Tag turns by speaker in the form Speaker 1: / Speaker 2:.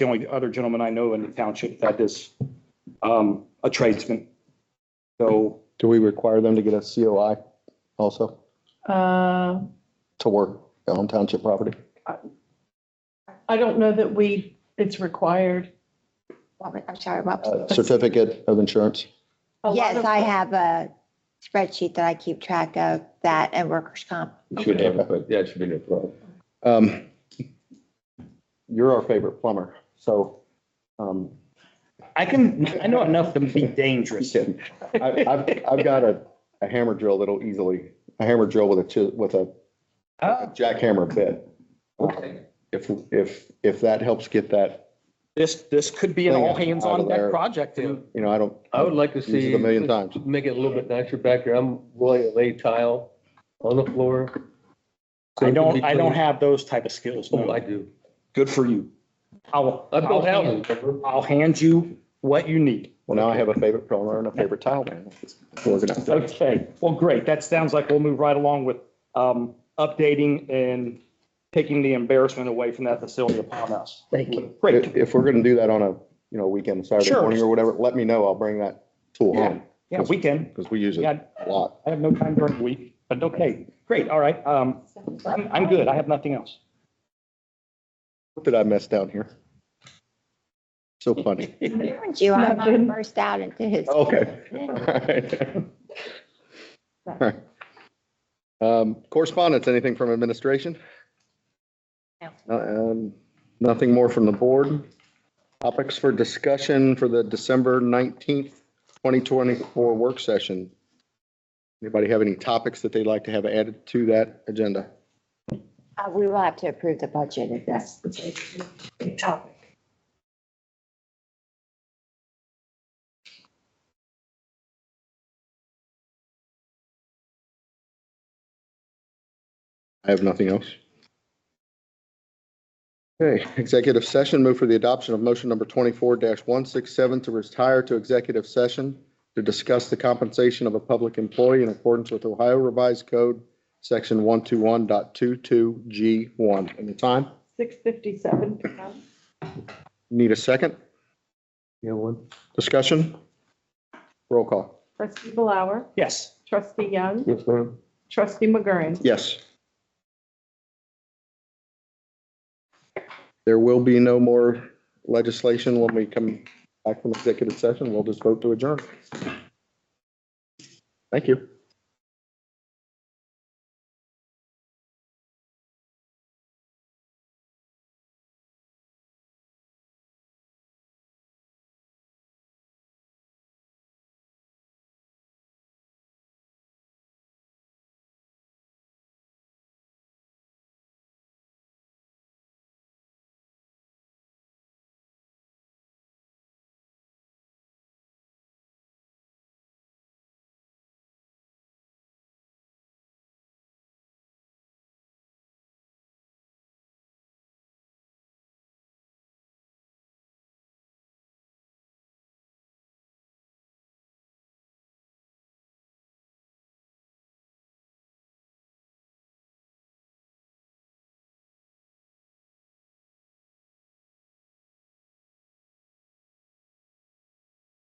Speaker 1: the only other gentleman I know in the township that is um, a tradesman. So
Speaker 2: Do we require them to get a COI also
Speaker 3: Uh,
Speaker 2: to work on township property?
Speaker 3: I don't know that we, it's required.
Speaker 4: Want me- I'm sorry, what-
Speaker 2: Uh, Certificate of insurance?
Speaker 3: A lot
Speaker 4: yes,
Speaker 3: of-
Speaker 4: I have a spreadsheet that I keep track of that and workers' comp.
Speaker 5: You should have, it, but yeah, it should be no problem.
Speaker 2: Um, You're our favorite plumber, so um,
Speaker 1: I can, I know enough to be dangerous.
Speaker 2: I- I've, I've got a a hammer drill that'll easily, a hammer drill with a, chi- with a a
Speaker 1: Ah,
Speaker 2: jackhammer bit.
Speaker 5: Okay.
Speaker 2: If, if, if that helps get that,
Speaker 1: This, this could be an all hands on deck project. and
Speaker 2: you know, I don't,
Speaker 5: I would like to
Speaker 2: use
Speaker 5: see.
Speaker 2: it a million times.
Speaker 5: Make it a little bit nicer back here. I'm willing to lay tile on the floor. So it
Speaker 1: I
Speaker 5: can
Speaker 1: don't,
Speaker 5: be
Speaker 1: I don't
Speaker 5: clean.
Speaker 1: have those type of skills.
Speaker 5: Oh, I
Speaker 1: No,
Speaker 5: do.
Speaker 1: good for you. I'll,
Speaker 5: I
Speaker 1: I'll
Speaker 5: built houses.
Speaker 1: hand-
Speaker 5: remember?
Speaker 1: I'll hand you what you need.
Speaker 2: well, now I have a favorite plumber and a favorite tile man. Organized.
Speaker 1: Okay, well, great. That sounds like we'll move right along with um, updating and taking the embarrassment away from that facility upon us. Thank you. Great.
Speaker 2: If, if we're gonna do that on a, you know, weekend, Saturday
Speaker 1: Sure.
Speaker 2: morning or whatever, let me know. I'll bring that tool home,
Speaker 1: Yeah, we can.
Speaker 2: because we use it
Speaker 1: Yeah,
Speaker 2: a lot.
Speaker 1: I have no time during the week, but okay, great, all right. Um, I'm, I'm good. I have nothing else.
Speaker 2: What did I mess down here? So funny.
Speaker 4: Warned You I
Speaker 3: Nothing.
Speaker 4: burst out into his.
Speaker 2: Okay. All right. All right. Um, correspondence, anything from administration?
Speaker 4: No.
Speaker 2: No. Um, nothing more from the board? Topics for discussion for the December nineteenth, twenty twenty-four work session. Anybody have any topics that they'd like to have added to that agenda?
Speaker 4: Uh, We will have to approve the budget if that's the big topic.
Speaker 2: I have nothing else. Okay, executive session, move for the adoption of motion number twenty-four one six seven to retire to executive session to discuss the compensation of a public employee in accordance with Ohio Revised Code, section one two one dot two two G one. And the time,
Speaker 3: 6:57.
Speaker 2: need a second? Yeah, one. Discussion? Roll call.
Speaker 3: Trustee Blower,
Speaker 1: Yes.
Speaker 3: trustee Young,
Speaker 5: Yes, ma'am.
Speaker 3: trustee McGurran.
Speaker 2: Yes. There will be no more legislation when we come back from executive session. We'll just vote to adjourn. Thank you.